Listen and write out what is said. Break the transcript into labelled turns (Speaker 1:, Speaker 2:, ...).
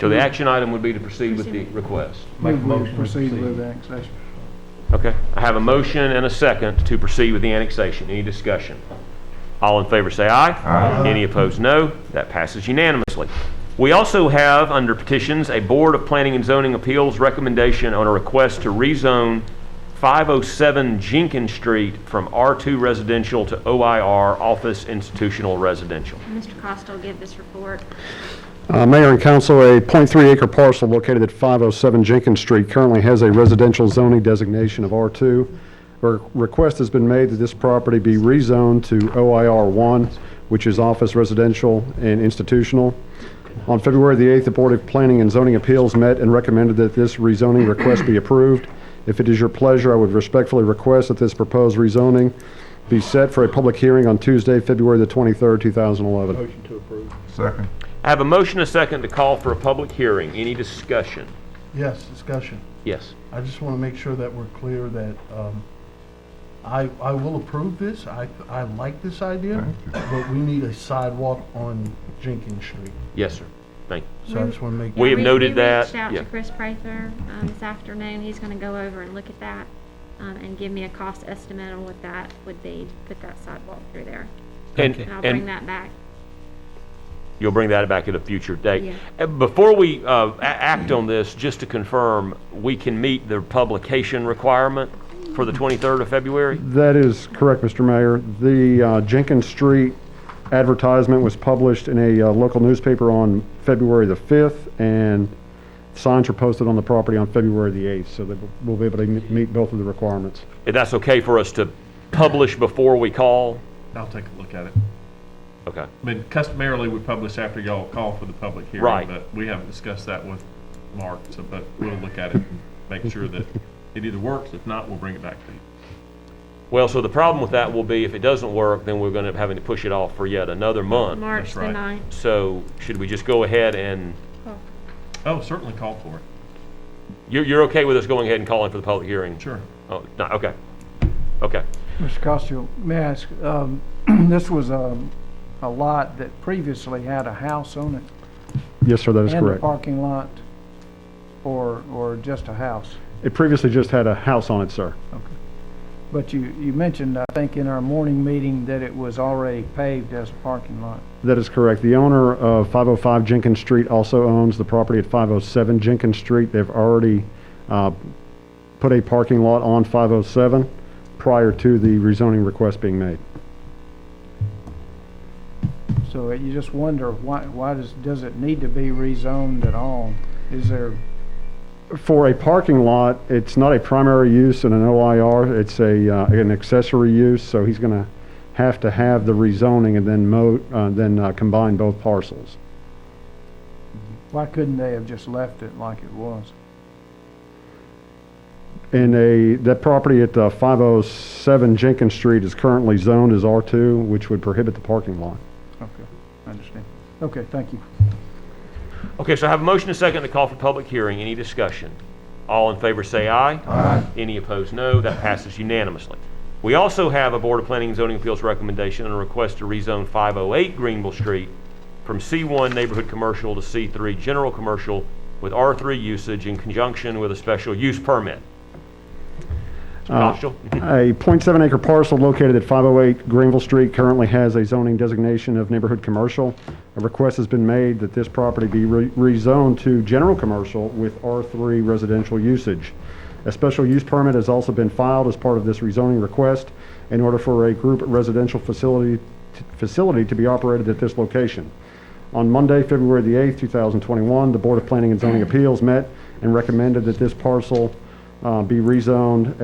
Speaker 1: So the action item would be to Mm-hmm. proceed with the request.
Speaker 2: Make a
Speaker 3: Move we
Speaker 2: motion to
Speaker 3: proceed
Speaker 2: proceed.
Speaker 3: with annexation.
Speaker 1: Okay, I have a motion and a second to proceed with the annexation. Any discussion? All in favor say aye. Aye. Any opposed, no. That passes unanimously. We also have, under petitions, a Board of Planning and Zoning Appeals recommendation on a request to rezone 507 Jenkins Street from R2 residential to OIR, office institutional residential.
Speaker 4: Mr. Costa will give this report.
Speaker 5: Uh, Mayor and council, a .3 acre parcel located at 507 Jenkins Street currently has a residential zoning designation of R2. A request has been made that this property be rezoned to OIR1, which is office residential and institutional. On February the 8th, the Board of Planning and Zoning Appeals met and recommended that this rezoning request be approved. If it is your pleasure, I would respectfully request that this proposed rezoning be set for a public hearing on Tuesday, February the 23rd, 2011.
Speaker 2: Motion to approve.
Speaker 3: Second.
Speaker 1: I have a motion and a second to call for a public hearing. Any discussion?
Speaker 2: Yes, discussion.
Speaker 1: Yes.
Speaker 2: I just want to make sure that we're clear that um, I, I will approve this. I, I like this idea, but we need a sidewalk on Jenkins Street.
Speaker 1: Yes, sir. Thank you.
Speaker 2: So I just want to make.
Speaker 1: We have
Speaker 4: We-
Speaker 1: noted
Speaker 4: We
Speaker 1: that,
Speaker 4: reached out
Speaker 1: yeah.
Speaker 4: to Chris Prather um, this afternoon. He's going to go over and look at that um, and give me a cost estimate on what that would be, to put that sidewalk through there.
Speaker 1: And-
Speaker 4: And I'll
Speaker 1: and-
Speaker 4: bring that back.
Speaker 1: You'll bring that back at a future date.
Speaker 4: Yeah.
Speaker 1: Uh, Before we uh, a- act on this, just to confirm, we can meet the publication requirement for the 23rd of February?
Speaker 5: That is correct, Mr. Mayor. The uh, Jenkins Street advertisement was published in a uh, local newspaper on February the 5th, and signs were posted on the property on February the 8th, so that we'll be able to m- meet both of the requirements.
Speaker 1: If that's okay for us to publish before we call?
Speaker 6: I'll take a look at it.
Speaker 1: Okay.
Speaker 6: I mean, customarily, we publish after y'all call for the public hearing.
Speaker 1: Right.
Speaker 6: But we haven't discussed that with Mark, so, but we'll look at it and make sure that it either works. If not, we'll bring it back to you.
Speaker 1: Well, so the problem with that will be if it doesn't work, then we're going to be having to push it off for yet another month.
Speaker 4: March the
Speaker 6: right.
Speaker 4: 9th.
Speaker 1: So should we just go ahead and,
Speaker 6: Oh, certainly call for it.
Speaker 1: you're, you're okay with us going ahead and calling for the public hearing?
Speaker 6: Sure.
Speaker 1: Oh, no, okay. Okay.
Speaker 3: Mr. Costello, may I ask, um, this was um, a lot that previously had a house on it?
Speaker 5: Yes, sir, that is
Speaker 3: And a
Speaker 5: correct.
Speaker 3: parking lot, or, or just a house?
Speaker 5: It previously just had a house on it, sir.
Speaker 3: But you, you mentioned, I think, in our morning meeting that it was already paved as a parking lot.
Speaker 5: That is correct. The owner of 505 Jenkins Street also owns the property at 507 Jenkins Street. They've already uh, put a parking lot on 507 prior to the rezoning request being made.
Speaker 3: So you just wonder, why, why does, does it need to be rezoned at all? Is there,
Speaker 5: For a parking lot, it's not a primary use in an OIR, it's a, uh, an accessory use, so he's going to have to have the rezoning and then mo, uh, then uh, combine both parcels.
Speaker 3: why couldn't they have just left it like it was?
Speaker 5: And a, that property at uh, 507 Jenkins Street is currently zoned as R2, which would prohibit the parking lot.
Speaker 3: Okay, I understand. Okay, thank you.
Speaker 1: Okay, so I have a motion and a second to call for public hearing. Any discussion? All in favor say aye. Aye. Any opposed, no. That passes unanimously. We also have a Board of Planning and Zoning Appeals recommendation and a request to rezone 508 Greenville Street from C1 Neighborhood Commercial to C3 General Commercial with R3 usage in conjunction with a special use permit. Mr. Costello?
Speaker 5: Uh, A .7 acre parcel located at 508 Greenville Street currently has a zoning designation of neighborhood commercial. A request has been made that this property be re- rezoned to general commercial with R3 residential usage. A special use permit has also been filed as part of this rezoning request in order for a group residential facility, facility to be operated at this location. On Monday, February the 8th, 2021, the Board of Planning and Zoning Appeals met and recommended that this parcel uh, be rezoned